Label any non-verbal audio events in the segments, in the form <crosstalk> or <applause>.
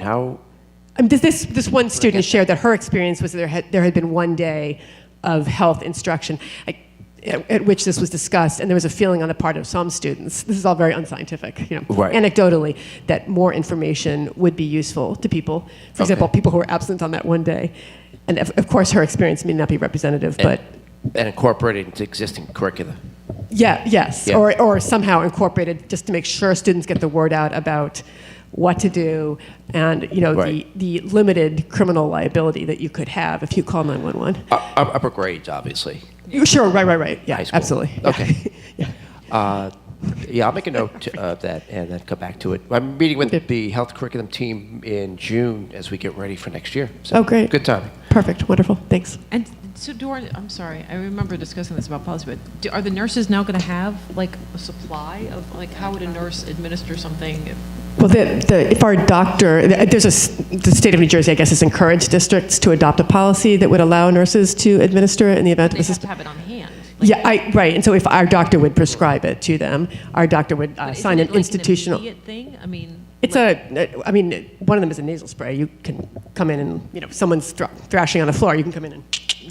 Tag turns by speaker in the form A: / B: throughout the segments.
A: How?
B: Um, this, this, this one student shared that her experience was that there had, there had been one day of health instruction I, at, at which this was discussed, and there was a feeling on the part of some students, this is all very unscientific, you know,
A: Right.
B: anecdotally, that more information would be useful to people. For example, people who were absent on that one day. And of, of course, her experience may not be representative, but
A: and incorporate it into existing curricula.
B: yeah, yes,
A: Yeah.
B: Or, or somehow incorporated just to make sure students get the word out about what to do and you know
A: Right.
B: the, the limited criminal liability that you could have if you call 911
A: U- up- upper grades, obviously.
B: you sure right right right yeah
A: High school.
B: absolutely Yeah.
A: Okay.
B: <laughs> yeah.
A: Uh, yeah, I'll make a note to- of that and then come back to it. I'm meeting with
B: Okay.
A: the health curriculum team in June as we get ready for next year. So
B: oh great
A: Good timing.
B: perfect wonderful thanks
C: And so, do our, I'm sorry, I remember discussing this about policy, but do, are the nurses now going to have like a supply of like how would a nurse administer something? If,
B: Well, the, the, if our doctor, uh, there's a, s- the state of New Jersey, I guess, has encouraged districts to adopt a policy that would allow nurses to administer it in the event of
C: they
B: a
C: have
B: system.
C: to have it on hand. Like,
B: Yeah, I, right. And so if our doctor would prescribe it to them, our doctor would uh,
C: isn't
B: sign
C: it,
B: an
C: like,
B: institutional.
C: immediate thing. I mean,
B: it's
C: like,
B: a, I mean, one of them is a nasal spray. You can come in and, you know, if someone's thr- thrashing on the floor, you can come in and.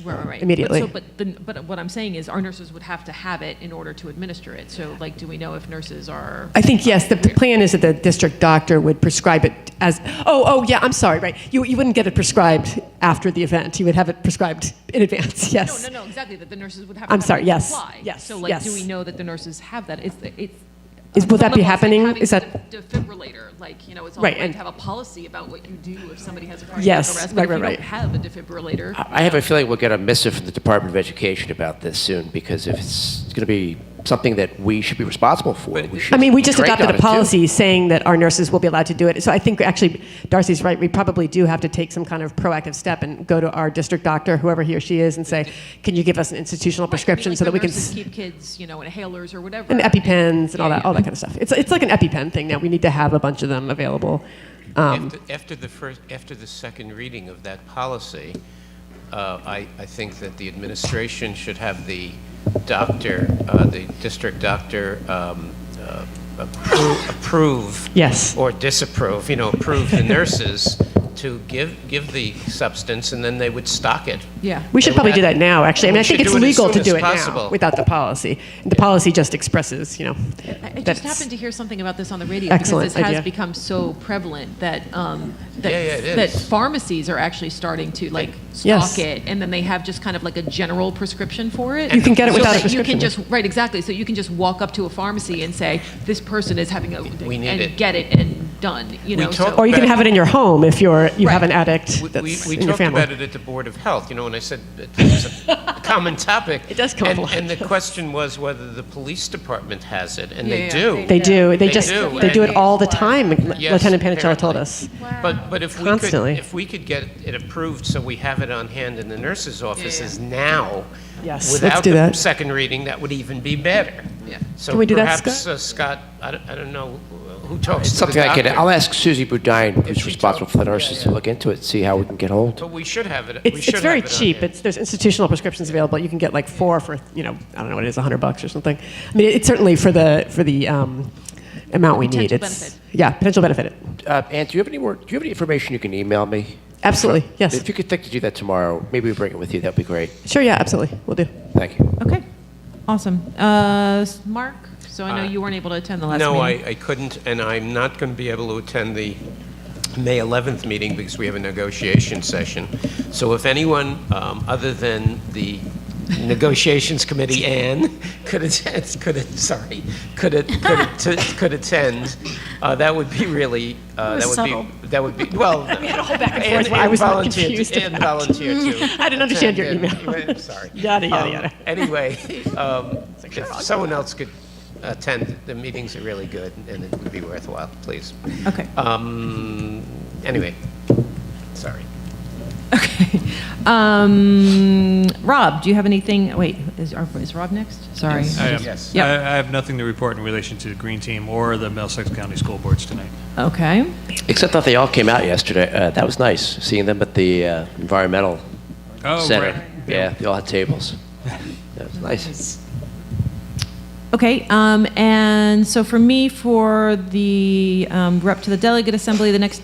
C: right, right, right.
B: immediately.
C: But, so, but, the, but what I'm saying is, our nurses would have to have it in order to administer it. So, like, do we know if nurses are?
B: I think, yes, the, the plan is that the district doctor would prescribe it as, oh, oh, yeah, I'm sorry, right. You, you wouldn't get it prescribed after the event. You would have it prescribed in advance, <laughs>
C: No,
B: yes.
C: no, no, exactly. That the nurses would have.
B: I'm
C: to have
B: sorry,
C: a
B: yes,
C: Supply.
B: yes,
C: So, like, do
B: yes.
C: we know that the nurses have that? It's it's.
B: Is- will that be
C: Some level, it's like
B: happening?
C: having
B: Is
C: a
B: that-
C: def- defibrillator? Like, you know, it's all
B: Right,
C: right,
B: and-
C: to have a policy about what you do if somebody has a cardiac
B: Yes,
C: arrest.
B: right,
C: but if
B: right, Uh,
C: you don't have a defibrillator,
A: I I have a feeling we'll get a missive from the Department of Education about this soon because if it's going to be something that we should be responsible for, we should.
B: I mean, we just
A: be trained
B: adopted
A: on
B: a
A: it, too.
B: policy saying that our nurses will be allowed to do it. So I think actually Darcy's right. We probably do have to take some kind of proactive step and go to our district doctor, whoever he or she is, and say, "Can you give us an institutional prescription
C: like
B: so that
C: when
B: we can
C: nurses
B: s-
C: keep kids, you know, inhalers or whatever.
B: and epipens and all
C: Yeah,
B: that, all that kind of stuff." It's it's like an EpiPen thing now. We need to have a bunch of them available. Um,
D: After, after the first, after the second reading of that policy, uh, I, I think that the administration should have the doctor, uh, the district doctor, um, uh, appro- approve.
B: Yes.
D: Or disapprove, you know, approve the nurses to give, give the substance, and then they would stock it.
C: Yeah.
B: we should
D: They
B: probably
D: would
B: do
D: have-
B: that now. Actually, I mean,
D: We
B: I think
D: should
B: it's
D: do it as
B: legal
D: soon
B: to
D: as
B: do it now
D: possible.
B: without the policy. The policy just expresses, you know.
C: I I
B: that's-
C: just happened to hear something about this on the radio
B: Excellent
C: because this
B: idea.
C: has become so prevalent that um, that,
D: Yeah, yeah, it
C: that
D: is.
C: pharmacies are actually starting to like stock
B: Yes.
C: it, and then they have just kind of like a general prescription for it.
B: You can get it
C: So
B: without a
C: that
B: prescription.
C: You can just right exactly. So you can just walk up to a pharmacy and say, "This person is having a
D: We need
C: and
D: it.
C: get it and done." You
D: We
C: know,
D: talk-
C: so
B: or you can
D: But-
B: have it in your home if you're you have
C: Right.
B: an addict
D: We-
B: that's
D: We, we
B: in your
D: talked
B: family.
D: about it at the Board of Health, you know, and I said it was
B: <laughs>
D: a common topic.
B: It does come up
D: and,
B: a lot.
D: And the question was whether the police department has it, and
C: Yeah,
D: they
C: yeah,
D: do.
B: They do. They,
D: They
B: just
D: do,
B: they
D: and-
B: do it all the time.
D: Yes,
B: Lieutenant Panicella told
D: apparently.
B: us.
D: But, but if we
B: Constantly.
D: could, if we could get it approved so we have it on hand in the nurses' offices now.
B: Yes, let's
D: without
B: do
D: the
B: that.
D: Second reading, that would even be better.
C: Yeah.
D: So
B: Can we do that,
D: perhaps,
B: Scott?
D: uh, Scott, I don't, I don't know who talks to the
A: Something I can.
D: doctor,
A: I'll ask Susie Budine,
D: If
A: who's
D: she
A: responsible
D: told-
A: for the nurses, to look into it, see how we can get hold.
D: But we should have it, we
B: It's, it's
D: should have
B: very
D: it on
B: cheap.
D: hand.
B: It's, there's institutional prescriptions available. You can get like four for you know I don't know what it is, hundred bucks or something. I mean, it's certainly for the for the um, amount we need.
C: Potential
B: It's
C: benefit.
B: yeah, potential benefit.
A: Uh, Ann, do you have any more? Do you have any information you can email me?
B: Absolutely, yes.
A: If you could think to do that tomorrow, maybe we bring it with you. That'd be great.
B: Sure, yeah, absolutely, we'll do.
A: Thank you.
C: Okay, awesome. Uh, s- Mark, so I know you weren't able to attend the last
D: Uh, No,
C: meeting.
D: I, I couldn't, and I'm not going to be able to attend the May 11th meeting because we have a negotiation session. So if anyone um, other than the negotiations committee, Ann, <laughs> could attend, could, att- sorry, could, att- could,
C: <laughs>
D: att- could attend, uh, that would be really, uh, that would be, that would be,
C: <laughs>
D: well. We had a whole back
B: and forth where I was not <laughs> confused
D: Ann
B: about.
D: volunteered to.
B: <laughs> I didn't understand your
D: attend,
B: email.
D: and- Sorry.
B: Yada, yada,
D: Um,
B: yada. <laughs>
D: Anyway, um, if someone else could attend, the meetings are really good, and it would be worthwhile, please.
C: Okay.
D: Um, Anyway, sorry.
C: Um, Rob, do you have anything? Wait, is, is Rob next? Sorry.
E: I am.
D: Yes.
E: I,
C: Yeah.
E: I have nothing to report in relation to the Green Team or the Middlesex County School Boards tonight.
C: Okay.
A: Except that they all came out yesterday. Uh, that was nice seeing them at the uh, environmental
E: Oh,
A: center.
E: right.
A: Yeah, they all had
E: <laughs>
A: tables. That was nice.
C: Okay, um, and so for me, for the um, rep to the delegate assembly, the next